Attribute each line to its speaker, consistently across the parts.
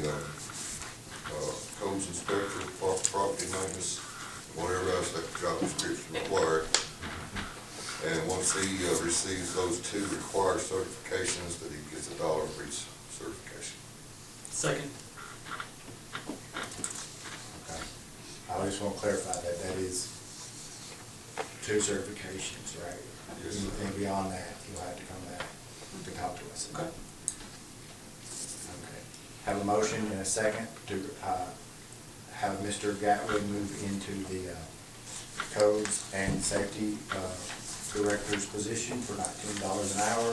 Speaker 1: uh, once he uh, receives those two required certifications, that he gets a dollar for each certification.
Speaker 2: Second.
Speaker 3: Okay. I just want to clarify that that is two certifications, right?
Speaker 1: Yes, sir.
Speaker 3: Anything beyond that, you'll have to come back to talk to us. about.
Speaker 2: Okay.
Speaker 3: Okay. Have a motion and a second to uh, have Mr. Gatwood move into the uh, codes and safety uh, director's position for nineteen dollars an hour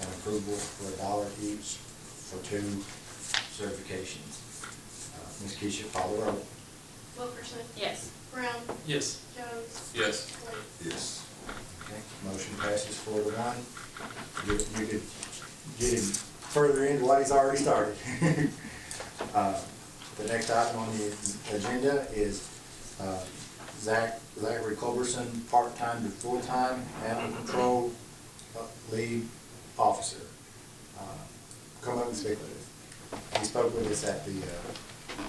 Speaker 3: and approval for a dollar each for two certifications. Uh, Ms. Keisha, follow the roll.
Speaker 4: Wilkerson?
Speaker 5: Yes.
Speaker 4: Brown?
Speaker 2: Yes.
Speaker 4: Jones?
Speaker 2: Yes.
Speaker 4: Wade?
Speaker 1: Yes.
Speaker 3: Okay, Motion passes four to one. You you could get him further into what he's already started. Uh, The next item on the agenda is uh, Zach, Zachary Culberson, part-time to full-time animal control uh, lead officer. Uh, Come up and speak with us. He spoke with us at the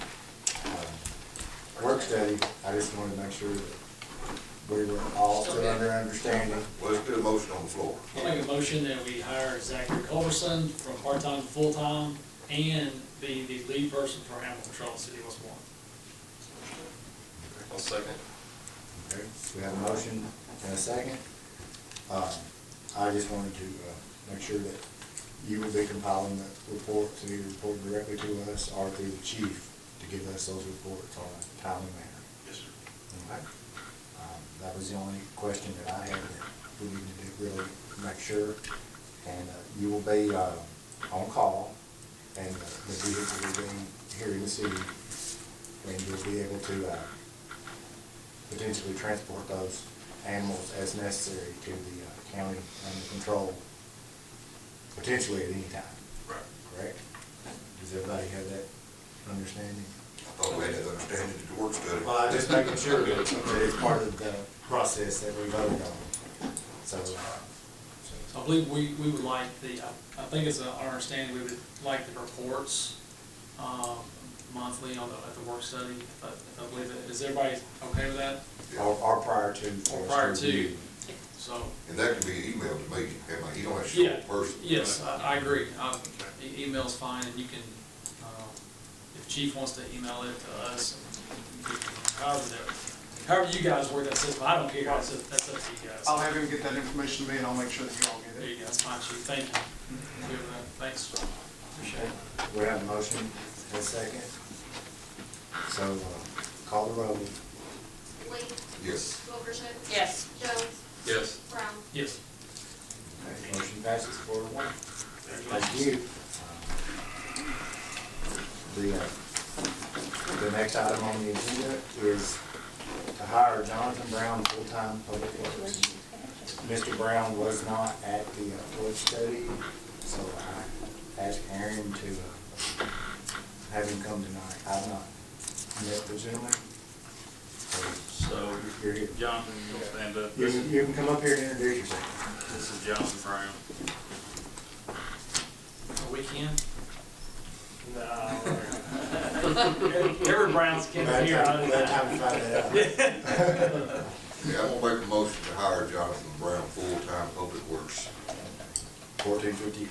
Speaker 3: uh, uh, work study. I just wanted to make sure that we were all still under understanding.
Speaker 1: Well, let's do a motion on the floor.
Speaker 2: I'll make a motion that we hire Zachary Culberson from part-time to full-time and be the lead person for animal control in the city of West Warren.
Speaker 6: I'll second.
Speaker 3: Okay, We have a motion and a second. Um, I just wanted to uh, make sure that you will be compiling the report, so you report directly to us or through the chief to give us those reports on a timely manner.
Speaker 6: Yes, sir.
Speaker 3: Okay? Um, That was the only question that I had that we needed to really make sure. And uh, you will be uh, on call and uh, the vehicle will be here in the city. And you'll be able to uh, potentially transport those animals as necessary to the uh, county under control, potentially at any time,
Speaker 6: Right.
Speaker 3: correct? Does everybody have that understanding?
Speaker 1: I thought we had that understanding at the work study.
Speaker 3: Well, I'm just making sure that it's part of the process that we voted on, so. uh, so-
Speaker 2: So I believe we, we would like the, I I think it's uh, our understanding, we would like the reports um, monthly on the, at the work study. if I- if I believe it. Is everybody okay with that?
Speaker 3: Or, or prior to.
Speaker 2: Or prior to?
Speaker 3: review.
Speaker 2: So,
Speaker 1: And that can be emailed to me, and I- you don't have to show
Speaker 2: yeah,
Speaker 1: it personally.
Speaker 2: yes, I, I agree. Um, e- Email's fine, and you can, um, if chief wants to email it to us, however, that- however you guys work that system, I don't care, that's up that's up to you guys.
Speaker 7: I'll have him get that information to me, and I'll make sure that you all get
Speaker 2: There
Speaker 7: it.
Speaker 2: you go, that's fine, chief, thank you. Good with that. Thanks, Mm-hmm. appreciate it.
Speaker 3: We have a motion and a second. So, uh, call the roll.
Speaker 4: Lee?
Speaker 1: Yes.
Speaker 4: Wilkerson?
Speaker 5: Yes.
Speaker 4: Jones?
Speaker 6: Yes.
Speaker 4: Brown?
Speaker 2: Yes.
Speaker 3: Okay, Motion passes four to one. Thank you. Um, The, uh, the next item on the agenda is to hire Jonathan Brown, full-time public works. Mr. Brown was not at the uh, work study, so I asked Aaron to uh, have him come tonight. I've not met the gentleman. So,
Speaker 6: So,
Speaker 3: You're here.
Speaker 6: Jonathan, you'll stand up.
Speaker 3: You
Speaker 6: This
Speaker 3: can,
Speaker 6: is,
Speaker 3: you can come up here and introduce yourself.
Speaker 6: this is Jonathan Brown.
Speaker 2: A weekend? No. Every Browns kid here, I
Speaker 3: Glad time to find that out.
Speaker 1: Yeah, I'm gonna make a motion to hire Jonathan Brown, full-time public works.
Speaker 3: Fourteen fifty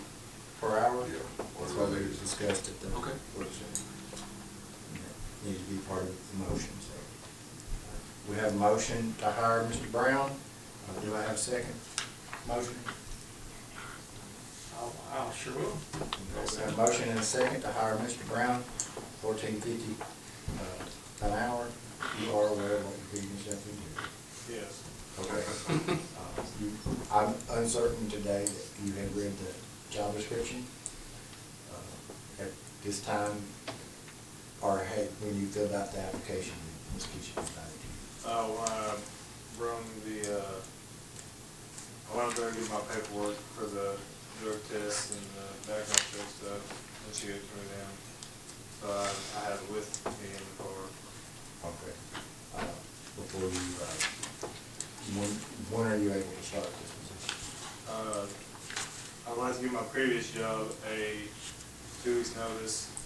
Speaker 3: per hour?
Speaker 1: Yeah.
Speaker 3: That's what we discussed at the.
Speaker 2: Okay.
Speaker 3: workshop. And that Needs to be part of the motion, so. We have a motion to hire Mr. Brown. Uh, Do I have a second? Motion?
Speaker 2: I sure will.
Speaker 3: We have a motion and a second to hire Mr. Brown, fourteen fifty, uh, an hour. You are aware of what you're getting yourself into.
Speaker 7: Yes.
Speaker 3: Okay. Uh, you- I'm uncertain today that you have read the job description. Uh, At this time, or had, when you filled out the application, Ms. Keisha provided you.
Speaker 7: Oh, uh, run the, uh, I went up there to do my paperwork for the drug test and the background check stuff, and she gave it to me then. So I, I had it with me in the car.
Speaker 3: Okay. Uh, Before you, uh, when, when are you able to start this position?
Speaker 7: Uh, I wanted to give my previous job a two weeks notice,